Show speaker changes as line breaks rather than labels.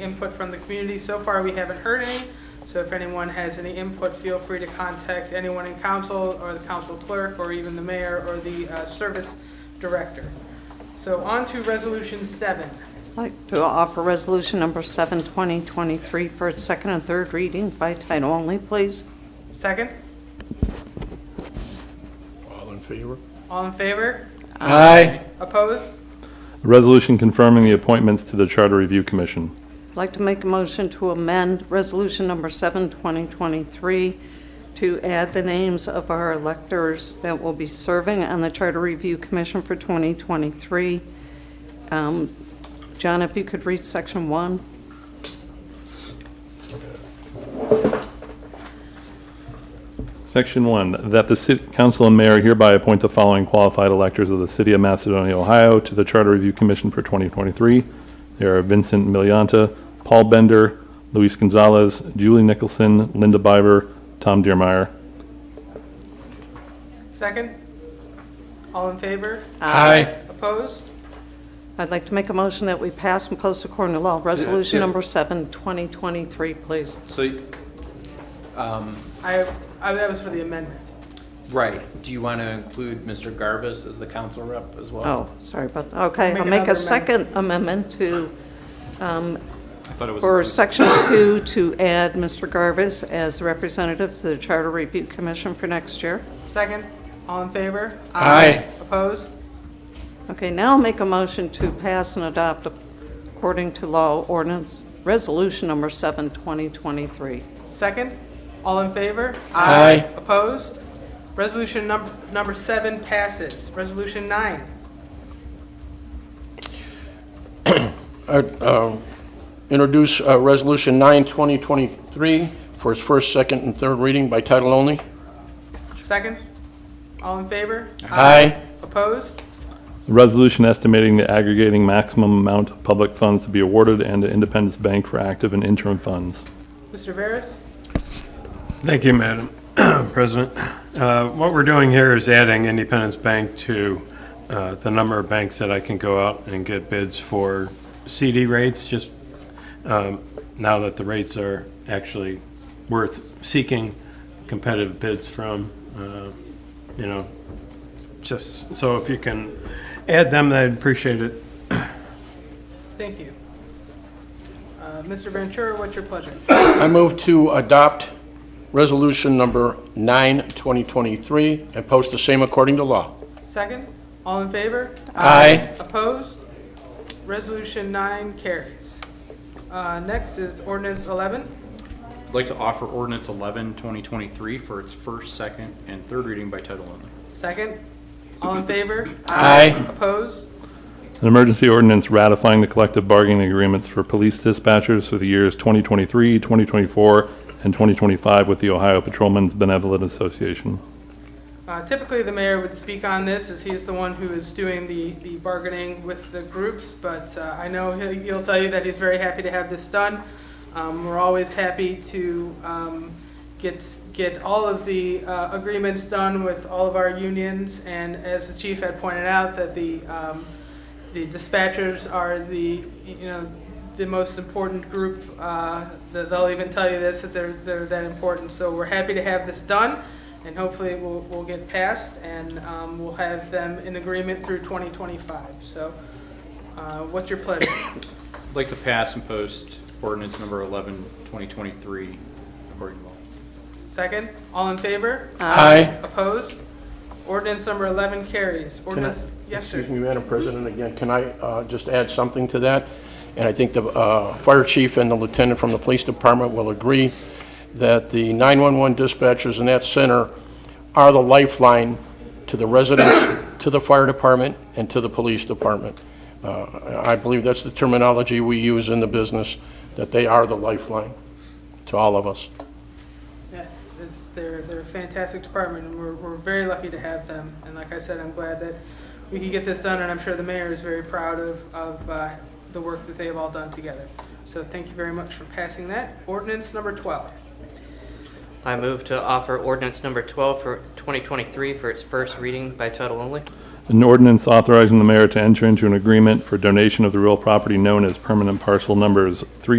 input from the community. So far, we haven't heard any. So if anyone has any input, feel free to contact anyone in council or the council clerk or even the mayor or the uh, service director. So on to resolution seven.
I'd like to offer resolution number 7, 2023, for its second and third reading by title only, please.
Second,
All in favor?
all in favor?
Aye.
Opposed?
Resolution confirming the appointments to the Charter Review Commission.
I'd like to make a motion to amend resolution number 7, 2023, to add the names of our electors that will be serving on the Charter Review Commission for 2023. Um, John, if you could read section 1.
Section 1, that the City Council and Mayor hereby appoint the following qualified electors of the City of Macedonia, Ohio to the Charter Review Commission for 2023. They are Vincent Milianta, Paul Bender, Luis Gonzalez, Julie Nicholson, Linda Biber, Tom Deermeyer.
Second, all in favor?
Aye.
Opposed?
I'd like to make a motion that we pass and post according to law resolution number 7, 2023, please.
So, um,
I, I- that was for the amendment.
right, do you want to include Mr. Garvis as the council rep as well?
Oh, sorry about that. Okay,
Make
I'll
another
make a
amendment.
second amendment to, um,
I thought it was
for
included.
section two, to add Mr. Garvis as representative to the Charter Review Commission for next year.
Second, all in favor?
Aye.
Opposed?
Okay, now I'll make a motion to pass and adopt according to law ordinance, resolution number seven, 2023.
Second, all in favor?
Aye.
Opposed? Resolution number, number seven passes. Resolution nine.
I'd, uh, Introduce uh, Resolution 9, 2023, for its first, second, and third reading by title only.
Second, all in favor?
Aye.
Opposed?
Resolution estimating the aggregating maximum amount of public funds to be awarded and to Independence Bank for active and interim funds.
Mr. Veras?
Thank you, Madam President. Uh, What we're doing here is adding Independence Bank to uh, the number of banks that I can go out and get bids for CD rates, just um, now that the rates are actually worth seeking competitive bids from, uh, you know, just, so if you can add them, I'd appreciate it.
Thank you. Uh, Mr. Ventura, what's your pleasure?
I move to adopt Resolution Number 9, 2023, and post the same according to law.
Second, all in favor?
Aye.
Opposed? Resolution nine carries. Uh, Next is ordinance 11.
I'd like to offer ordinance 11, 2023 for its first, second, and third reading by title only.
Second, all in favor?
Aye.
Opposed?
An emergency ordinance ratifying the collective bargaining agreements for police dispatchers for the years 2023, 2024, and 2025 with the Ohio Patrolmen's Benevolent Association.
Uh, Typically, the mayor would speak on this, as he's the one who is doing the, the bargaining with the groups, but uh, I know he'll, he'll tell you that he's very happy to have this done. Um, We're always happy to um, get, get all of the uh, agreements done with all of our unions, and as the chief had pointed out, that the, um, the dispatchers are the, you know, the most important group, uh, that they'll even tell you this, that they're, they're that important. So we're happy to have this done, and hopefully it will, will get passed, and um, we'll have them in agreement through 2025. So uh, what's your pleasure?
I'd like to pass and post ordinance number 11, 2023 according to law.
Second, all in favor?
Aye.
Opposed? Ordinance number 11 carries.
Can I-
Ordinance, yes, sir.
Excuse me, Madam President, again, can I uh, just add something to that? And I think the uh, fire chief and the lieutenant from the police department will agree that the 911 dispatchers in that center are the lifeline to the residents, to the fire department, and to the police department. Uh, I I believe that's the terminology we use in the business, that they are the lifeline to all of us.
Yes, it's, they're, they're a fantastic department, and we're, we're very lucky to have them. And like I said, I'm glad that we could get this done, and I'm sure the mayor is very proud of, of uh, the work that they have all done together. So thank you very much for passing that. Ordinance number 12.
I move to offer ordinance number 12 for 2023 for its first reading by title only.
An ordinance authorizing the mayor to enter into an agreement for donation of the real property known as permanent parcel numbers 3